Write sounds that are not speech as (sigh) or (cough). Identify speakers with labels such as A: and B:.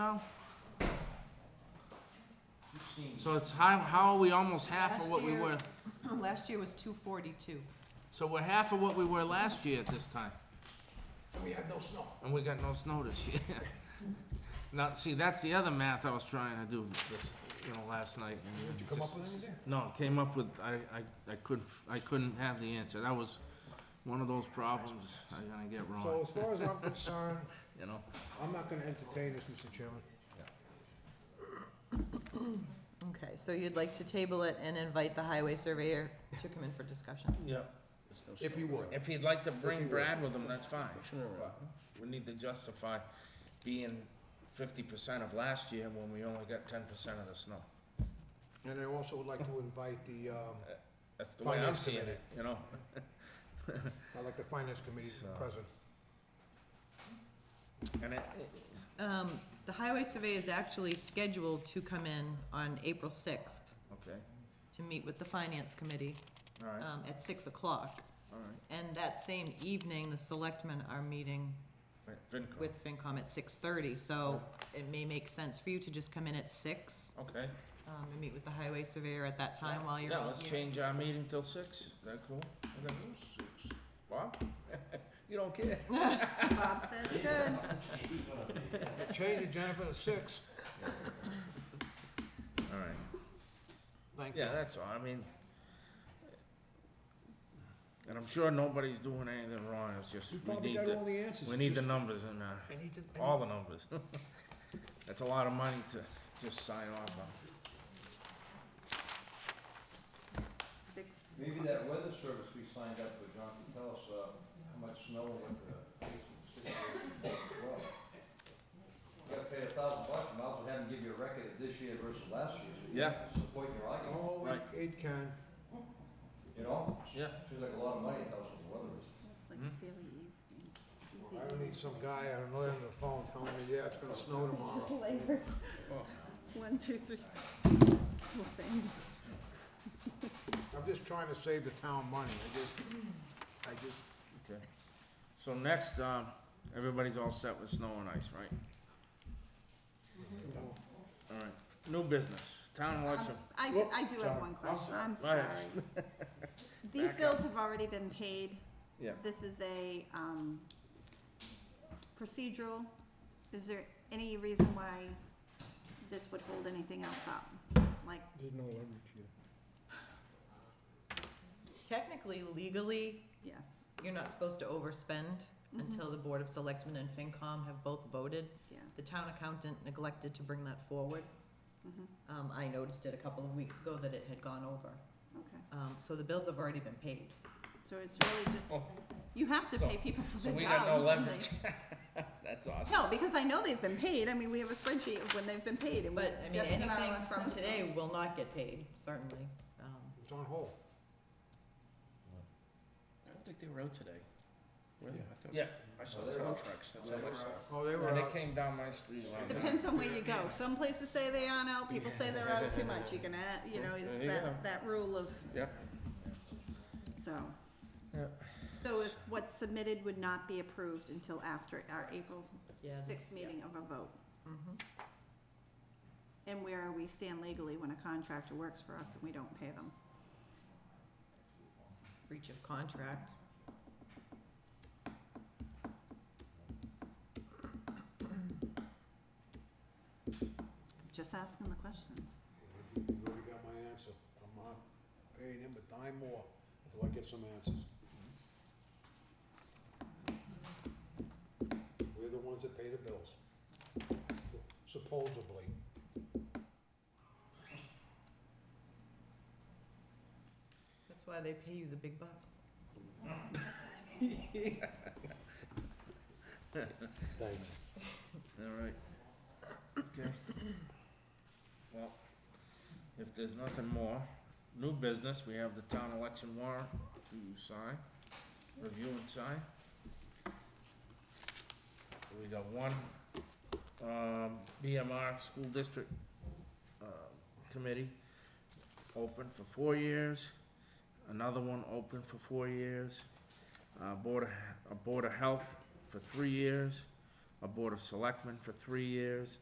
A: now?
B: You've seen,
C: So it's how, how are we almost half
A: Last
C: of what we
A: year-
C: were?
A: Um, Last year was two forty-two.
C: So we're half of what we were last year at this time,
B: and we had no snow.
C: and we got no snow this year. (laughs) Now, see, that's the other math I was trying to do this, you know, last night. and
B: Did you come up
C: just-
B: with anything?
C: No, came up with, I, I, I couldn't, I couldn't have the answer. That was one of those problems I'm gonna get
D: So
C: wrong,
D: as far as I'm
C: (laughs)
D: concerned,
C: you know?
D: I'm not gonna entertain this, Mr. Chairman.
A: Okay, so you'd like to table it and invite the highway surveyor to come in for discussion?
C: Yeah. If you would, if he'd like to bring Brad with him, that's fine. But We need to justify being fifty percent of last year when we only got ten percent of the snow.
D: And I also would like to invite the, um,
C: That's the way I'm
D: Finance
C: seeing
D: committee.
C: it, you know?
D: I'd like the finance committee to be
C: So-
D: present.
C: And it,
A: Um, the highway surveyor is actually scheduled to come in on April sixth
C: okay,
A: to meet with the finance committee,
C: all right,
A: um, at six o'clock.
C: all
A: And that same evening, the selectmen are meeting
C: right. FinCom,
A: with FinCom at six thirty, so it may make sense for you to just come in at six,
C: okay.
A: um, and meet with the highway surveyor at that time while you're
C: Yeah,
A: all
C: let's
A: here.
C: change our meeting till six, is that cool? Okay. Bob? (laughs) You don't care?
A: Bob says good.
C: (laughs)
D: Change it, Jennifer, to six.
C: All right.
D: Thank you.
C: Yeah, that's all, I mean, and I'm sure nobody's doing anything wrong, it's just,
D: We
C: we
D: probably
C: need
D: got
C: the,
D: all the answers.
C: we need the
D: Just-
C: numbers in there,
D: I need to- I
C: all
D: need-
C: the numbers. (laughs) That's a lot of money to just sign off on.
A: Six,
B: Maybe that weather service we signed up with, John, can tell us, uh, how much snow and what the situation is as well. You gotta pay a thousand bucks, you might as well have them give you a record of this year versus last year, so you
C: Yeah.
B: can support your argument,
D: Oh,
C: Right.
D: it- it can.
B: you know?
C: Yeah.
B: Seems like a lot of money to tell us what the weather is.
E: It's
A: Hmm?
E: like a fairly evening, easy.
D: I don't need some guy on the other end of the phone telling me, yeah, it's gonna snow
E: (laughs)
D: tomorrow.
E: Flavor. One, two, three. Cool things.
D: I'm just trying to save the town money. I just, I just,
C: Okay. So next, um, everybody's all set with snow and ice, right?
D: you know,
C: All right, new business, town
E: Um,
C: election,
E: I do,
C: Whoop,
E: I do
C: sorry.
E: have one question, I'm
C: Go
E: sorry.
C: ahead.
E: These
C: Back up.
E: bills have already been paid.
C: yeah.
E: This is a, um, procedural. Is there any reason why this would hold anything else up? Like,
A: Technically, legally,
E: yes,
A: you're not supposed to overspend
E: Mm-hmm.
A: until the Board of Selectmen and FinCom have both voted.
E: yeah,
A: The town accountant neglected to bring that forward.
E: mhm,
A: Um, I noticed it a couple of weeks ago that it had gone over.
E: okay.
A: Um, so the bills have already been paid.
E: So it's really just, you have to
C: So-
E: pay people for
C: Oh, So
E: their
C: we
E: jobs
C: got no
E: and
C: leverage.
E: they-
C: (laughs) That's awesome.
E: No, because I know they've been paid. I mean, we have a spreadsheet of when they've been paid and we
A: But, I mean,
E: just in our
A: anything
E: last
A: from
E: session.
A: today will not get paid, certainly. Um,
D: It's on hold.
F: I don't think they were out today. Were they? I thought-
C: Yeah.
F: I saw
B: Oh, they were
F: town
B: out.
F: trucks, that's
B: Yeah,
F: how much.
B: we're out.
D: Oh, they were
C: And it
D: out.
C: came down my street last night.
E: Depends on where you go. Some places say they aren't out, people say they're out too much. You can, add- you know,
F: There
E: it's
F: you
E: that, that rule of,
F: Yep.
E: so.
C: Yeah.
E: So if what's submitted would not be approved until after our April
A: yeah, this-
E: sixth meeting of a vote.
A: Mhm.
E: And where we stand legally when a contractor works for us and we don't pay them.
A: Breach of contract.
E: Just asking the questions.
D: You already got my answer. I'm not paying him a dime more until I get some answers. We're the ones that pay the bills, supposedly.
A: That's why they pay you the big bucks.
F: (laughs)
D: Thanks.
C: All right, okay. (coughs) Well, if there's nothing more, new business, we have the town election warrant to sign, review and sign. We got one, um, BMR School District, uh, Committee, open for four years. Another one open for four years. Uh, Board of, a Board of Health for three years a Board of Selectmen for three years,